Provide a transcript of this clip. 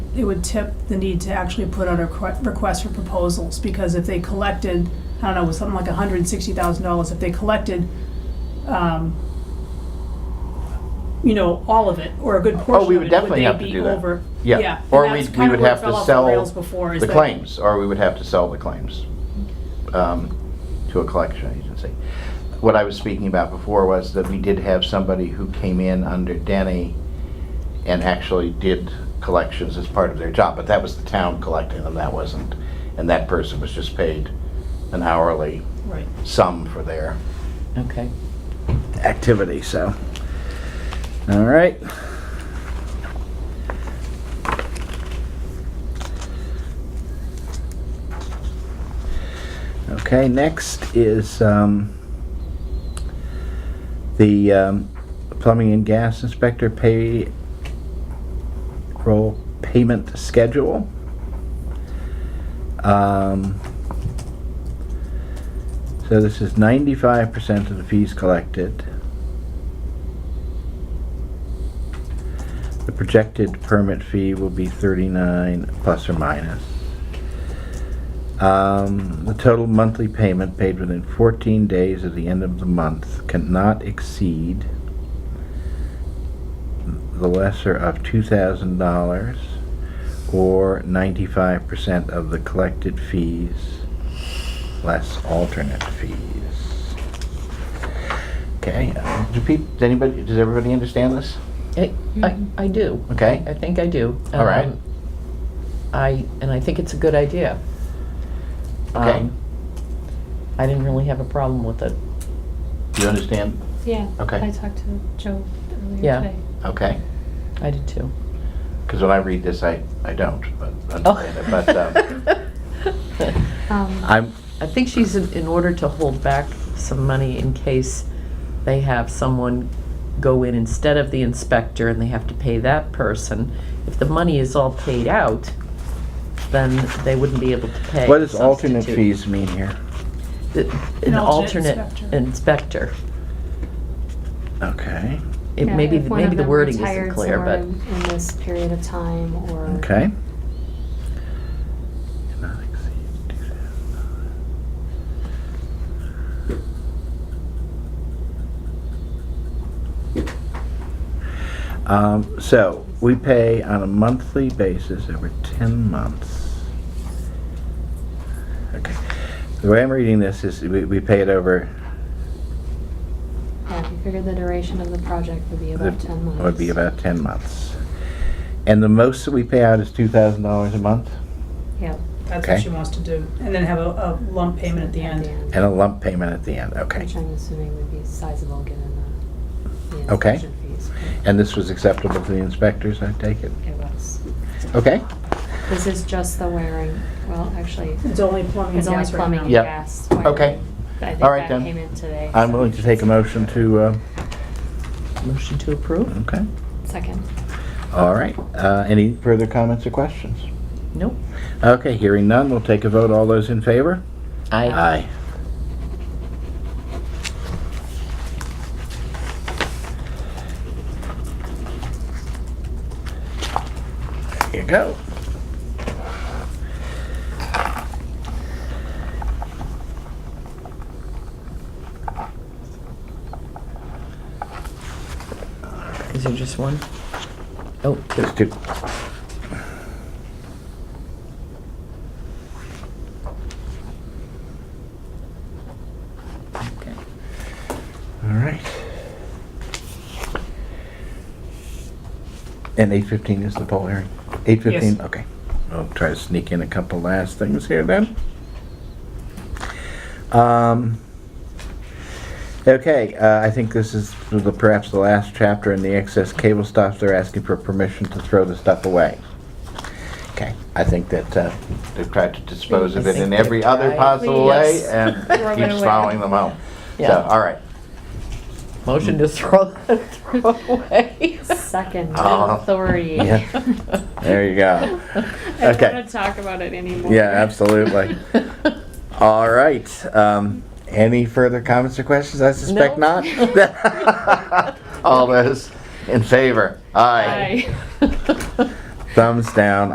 it would tip the need to actually put out a requ- request for proposals, because if they collected, I don't know, it was something like hundred and sixty thousand dollars, if they collected, um, you know, all of it, or a good Oh, portion we of would it, would definitely they have to be do that. over? Yeah, and or that's we, we kinda would where it have fell to off the sell rails before, is the that- claims, or we would have to sell the claims um, to a collection agency. What I was speaking about before was that we did have somebody who came in under Denny and actually did collections as part of their job, but that was the town collecting them, that wasn't. And that person was just paid an hourly Right. sum for their Okay. activity, so. All right. Okay, next is um, the um, plumbing and gas inspector pay roll payment schedule. Um, so this is ninety-five percent of the fees collected. The projected permit fee will be thirty-nine plus or minus. Um, the total monthly payment paid within fourteen days of the end of the month cannot exceed the lesser of two thousand dollars or ninety-five percent of the collected fees less alternate fees. Okay, uh, do people, does anybody, does everybody understand this? I, I, I do. Okay. I think I do. All right. Um, I, and I think it's a good idea. Okay. Um, I didn't really have a problem with it. Do you understand? Yeah. Okay. I talked to Joe earlier Yeah. today. Okay, I did too. because when I read this, I, I don't, but, understand Oh. it, Oh. but, um, Um, I'm, I think she's in, in order to hold back some money in case they have someone go in instead of the inspector and they have to pay that person. If the money is all paid out, then they wouldn't be able to pay. what does a alternate substitute. fees mean here? The- An An alternate alternate inspector. inspector. Okay, It yeah, maybe, if one maybe of the them wording isn't retired clear, somewhere but. In in this period of time, or. okay. Cannot exceed $2,000. Um, so, we pay on a monthly basis over ten months. Okay, the way I'm reading this is we, we pay it over. Yeah, if you figured the duration of the project would be the- about ten months. Would be about ten months. And the most that we pay out is two thousand dollars a month Yeah. That's Okay. what she wants to do, and then have a, a lump payment at the end. and a lump payment at the end, okay. Which I'm assuming would be sizable, given the. the Okay. inspection fees. And this was acceptable to the inspectors, I take it? It was. Okay? This is just the wearing, well, actually, It's only plumbing and it's only gas right now. plumbing and Yep. gas. Okay. wiring. I think All right, that then. came in today. I'm so- willing to take a motion to, uh, Motion to approve? okay, Second. all right. Uh, Any further comments or questions? Nope. Okay, hearing none, we'll take a vote. All those in favor? I, Aye. Here you go. is there just one? Oh, two. Just two. Okay. All right. And eight fifteen is the poll hearing? Eight fifteen, Yes. okay. I'll try to sneak in a couple last things here then. Um, Okay, uh, I think this is the- perhaps the last chapter in the excess cable stuff. They're asking for permission to throw the stuff away. Okay, I think that uh, they've tried to dispose of I it in think every they've other tried. possible way Yes. and Throw it keeps away. following them out. So, Yeah. all right. Motion to throw, throw away. Second. Oh, Authority. yeah. There you go. I Okay. don't want to talk about it anymore. Yeah, absolutely. All right. Um, any further comments or questions? I suspect No. not. All those in favor? Aye. Aye. Thumbs down.